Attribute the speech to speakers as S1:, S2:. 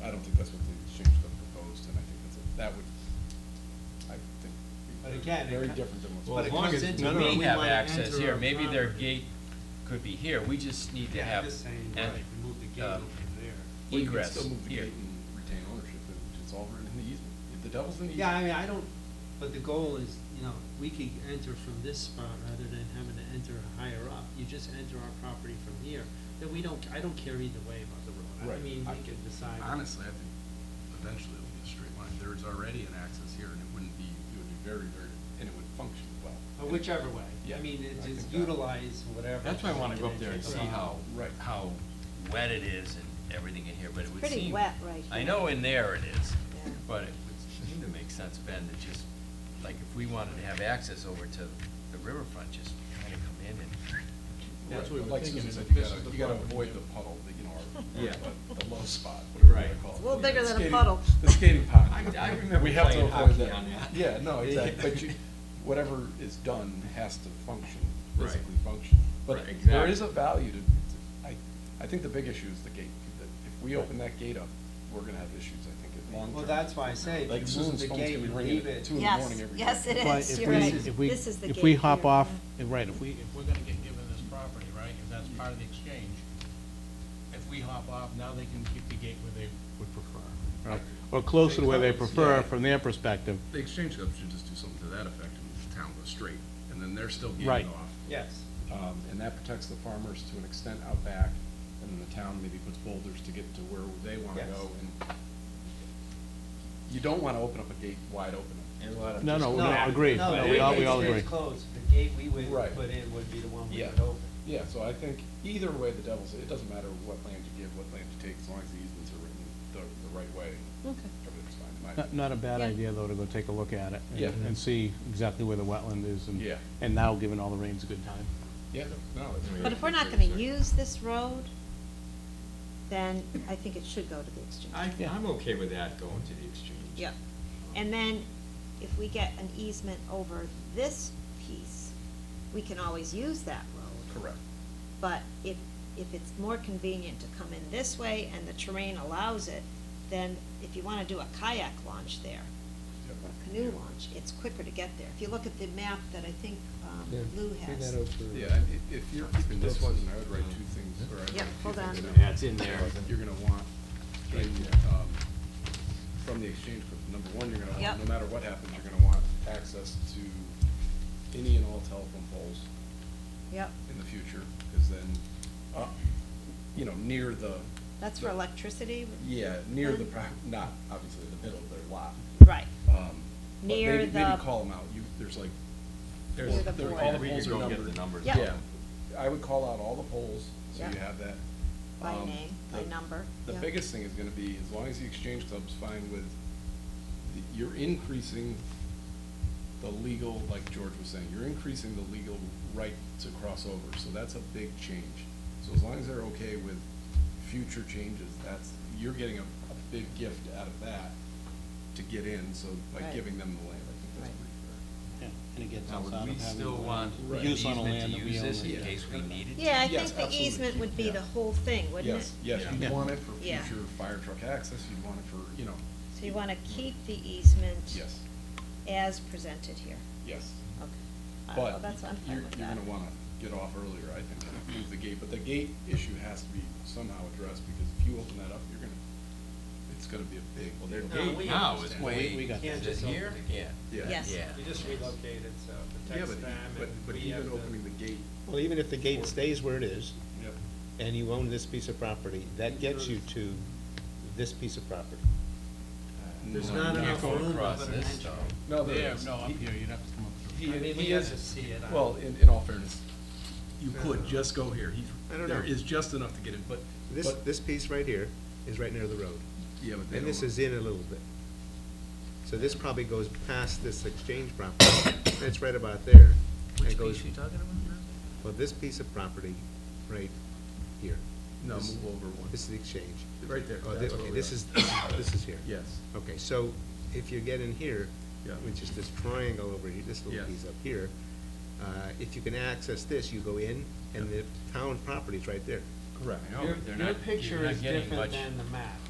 S1: that's what the exchange club proposed, and I think that's, a- that would, I think,
S2: But
S1: be
S2: again,
S1: very-
S2: it
S1: very
S2: co-
S1: different than what's.
S2: Well,
S3: But
S2: it
S3: as long
S2: comes
S3: as,
S2: into
S3: no, no,
S2: we
S3: we have
S2: wanna
S3: access
S2: enter
S3: here,
S2: our
S3: maybe their
S2: property.
S3: gate could be here, we just need to
S2: Yeah, I'm
S3: have
S2: just saying,
S3: an
S2: right, we move the gate
S3: um,
S2: over there.
S1: Well, you can
S3: egress
S1: still move the
S3: here.
S1: gate and retain ownership, and it's all written in the easement. If The devil's in the
S2: Yeah, I
S1: easement.
S2: mean, I don't, but the goal is, you know, we could enter from this spot rather than having to enter higher up. You just enter our property from here, then we don't, I don't care either way about the road. I
S1: Right.
S2: mean,
S1: I-
S2: we can decide.
S1: Honestly, I think eventually it'll be a straight line. There's already an access here, and it wouldn't be, it would be very, very, and it would function well.
S2: But Whichever way, I
S1: Yeah,
S2: mean,
S1: I
S2: it
S1: think
S2: just
S1: that-
S2: utilize whatever.
S3: That's why I wanna go up there and
S2: It's
S3: see
S2: about-
S3: how,
S1: Right.
S3: how wet it is and everything in here, but it
S4: It's
S3: would seem.
S4: pretty wet right
S3: I
S4: here.
S3: know in there it is,
S4: Yeah.
S3: but it would seem to make sense, Ben, to just, like, if we wanted to have access over to the riverfront, just kinda come in and
S1: Right,
S2: That's what
S1: but
S2: we're
S1: like
S2: thinking,
S1: Susan
S2: is
S1: said,
S2: if
S1: you
S2: this
S1: gotta-
S2: is the
S1: You gotta
S2: front.
S1: avoid the puddle, the, you know, or,
S3: Yeah.
S1: or the- the low spot, whatever you
S3: Right.
S1: wanna call it.
S4: It's a
S1: you
S4: little
S1: know,
S4: bigger
S1: the
S4: than a
S1: skating-
S4: puddle.
S1: The skating pond.
S3: I- I remember
S1: We have to
S3: playing
S1: avoid
S3: hockey
S1: that.
S3: on that.
S1: Yeah, no, exactly, but you, whatever is done has to function,
S3: Right.
S1: physically function. But
S3: Right,
S1: there
S3: exactly.
S1: is a value to, to- I, I think the big issue is the gate, that if we open that gate up, we're gonna have issues, I think, at long term.
S2: Well, that's why I say, if
S1: Like
S2: you move
S1: Susan's
S2: the
S1: phone's
S2: gate,
S1: gonna be
S2: you
S1: ringing
S2: leave
S1: at
S2: it.
S1: two in the morning every day.
S4: Yes, yes,
S5: But
S4: it
S5: if
S4: is, you're
S5: we-
S4: right.
S5: if we-
S4: This is the gate
S5: If we hop
S4: here.
S5: off, and right, if we, if we're gonna get given this property, right, if that's part of the exchange, if we hop off, now they can keep the gate where they would prefer. right? uh, Or closer to where they prefer from their perspective.
S1: The exchange club should just do something to that effect, and the town goes straight, and then they're still
S5: Right.
S1: gated off.
S2: Yes.
S1: Um, and that protects the farmers to an extent out back, and then the town maybe puts boulders to get to where they wanna
S2: Yes.
S1: go, and you don't wanna open up a gate wide open.
S5: No,
S2: No,
S5: no, no, agreed,
S2: No,
S5: No,
S2: the
S5: we all, we
S2: gate
S5: all
S2: stays
S5: agree.
S2: closed. The gate we would
S1: Right.
S2: put in would be the one we
S1: Yeah.
S2: would open.
S1: Yeah, so I think either way, the devil's, it doesn't matter what land you give, what land you take, as long as the easements are written the, the right way,
S4: Okay.
S1: everything's fine, in my
S5: Not,
S1: opinion.
S5: not a bad
S4: Yeah.
S5: idea, though, to go take a look at it. and-
S1: Yeah.
S5: And see exactly where the wetland is, and,
S1: Yeah.
S5: and now, given all the rains, a good time.
S1: Yeah, no, that's.
S4: But if we're not gonna use this road, then I think it should go to the exchange.
S6: I, I'm okay with that going to the exchange.
S4: Yeah. And then if we get an easement over this piece, we can always use that road.
S1: Correct.
S4: But if, if it's more convenient to come in this way and the terrain allows it, then if you wanna do a kayak launch there,
S1: Yep.
S4: a canoe launch, it's quicker to get there. If you look at the map that I think um, Lou has.
S1: Yeah, and i- if you're keeping this one, I would write two things, or I'd write two
S4: Yeah,
S1: things.
S4: hold on.
S1: down.
S6: Yeah, it's in there.
S1: You're gonna want, in, um, from the exchange, group, number one, you're gonna want,
S4: Yep.
S1: no matter what happens, you're gonna want access to any and all telephone poles
S4: Yep,
S1: in the future, because then, uh, you know, near the.
S4: that's for electricity?
S1: Yeah, near the, pro- not obviously the middle of their lot.
S4: Right.
S1: um, but
S4: Near
S1: maybe-
S4: the-
S1: Maybe call them out, you, there's like,
S4: There's-
S1: well,
S4: Near the
S1: there-
S4: board.
S1: all the
S6: We could
S1: poles are
S6: go
S1: numbered.
S6: get the numbers.
S4: Yeah.
S1: Yeah, I would call out all the poles, so you
S4: Yeah.
S1: have that.
S4: By
S1: Um,
S4: name, by
S1: the-
S4: number,
S1: The
S4: yeah.
S1: biggest thing is gonna be, as long as the exchange club's fine with, the- you're increasing the legal, like George was saying, you're increasing the legal right to cross over, so that's a big change. So as long as they're okay with future changes, that's, you're getting a, a big gift out of that to get in, so by
S4: Right.
S1: giving them the land, I think that's
S4: Right.
S1: pretty fair.
S5: Yeah, And it gets
S3: Now,
S5: us
S3: would
S5: out of
S3: we
S5: having.
S3: still want
S1: Right.
S3: an
S5: use on the
S3: easement
S5: land
S3: to
S5: that we
S3: use this
S5: own.
S3: in case we needed?
S4: Yeah, I
S1: Yes,
S4: think the
S1: absolutely.
S4: easement would be
S1: Yeah.
S4: the whole thing, wouldn't it?
S1: Yes, yes,
S3: Yeah.
S1: you'd want it for
S4: Yeah.
S1: future fire truck access, you'd want it for, you know.
S4: So you want to keep the easement?
S1: Yes,
S4: As presented here,
S1: yes,
S4: okay. Uh, well,
S1: but
S4: that's, I'm
S1: you're,
S4: fine with
S1: you're
S4: that.
S1: gonna wanna get off earlier, I think, and move the gate, but the gate issue has to be somehow addressed, because if you open that up, you're gonna, it's gonna be a big.
S3: Well, their
S2: No,
S3: gate
S2: we
S3: now is
S2: understand.
S5: Well, we- we
S3: way,
S5: got
S2: Can't
S3: is it
S2: just
S3: here?
S2: open
S3: Yeah.
S1: Yeah.
S4: Yes.
S3: Yeah.
S2: We just relocated, so it
S1: Yeah,
S2: protects
S1: but,
S2: them
S1: but,
S2: and
S1: but
S2: we have
S1: even opening
S2: to.
S1: the gate,
S7: Well, even if the
S1: Or-
S7: gate stays where it is,
S1: yep,
S7: and you own this piece of property, that gets you to this piece of property.
S2: There's
S1: No,
S2: not
S1: you can't
S2: enough
S1: go
S2: room
S3: across
S2: for an
S3: this,
S2: entry.
S3: though.
S1: no, there
S5: Yeah,
S1: is.
S5: no, up
S1: He-
S5: here, you'd have to come up through.
S1: He,
S2: I mean, we
S1: he
S2: have
S1: is-
S2: to see it. I
S1: Well,
S2: don't-
S1: in, in all fairness, you
S2: I
S1: could
S2: don't know.
S1: just go here, he's,
S7: I don't
S1: there
S7: know.
S1: is just enough to get in, but,
S7: This,
S1: but,
S7: this piece right here is right near the road,
S1: yeah, but they don't
S7: and this
S1: want-
S7: is in a little bit. So this probably goes past this exchange property, and it's right about there. and
S3: Which
S7: it goes-
S3: piece you talking about?
S7: Well, this piece of property, right here.
S1: No,
S7: This-
S1: move over one.
S7: This is the exchange.
S1: Right there,
S7: Oh, thi-
S1: that's where
S7: Okay,
S1: we
S7: this
S1: are.
S7: is, this is here.
S1: Yes.
S7: Okay, so if you get in here,
S1: Yeah.
S7: which is this triangle over here, this little
S1: Yes.
S7: piece up here, uh, if you can access this, you go in, and the town property is right there.
S1: Correct.
S3: No,
S2: Your,
S3: they're
S2: your
S3: not- you're
S2: picture
S3: not
S2: is
S3: getting
S2: different
S3: much-
S2: than the map.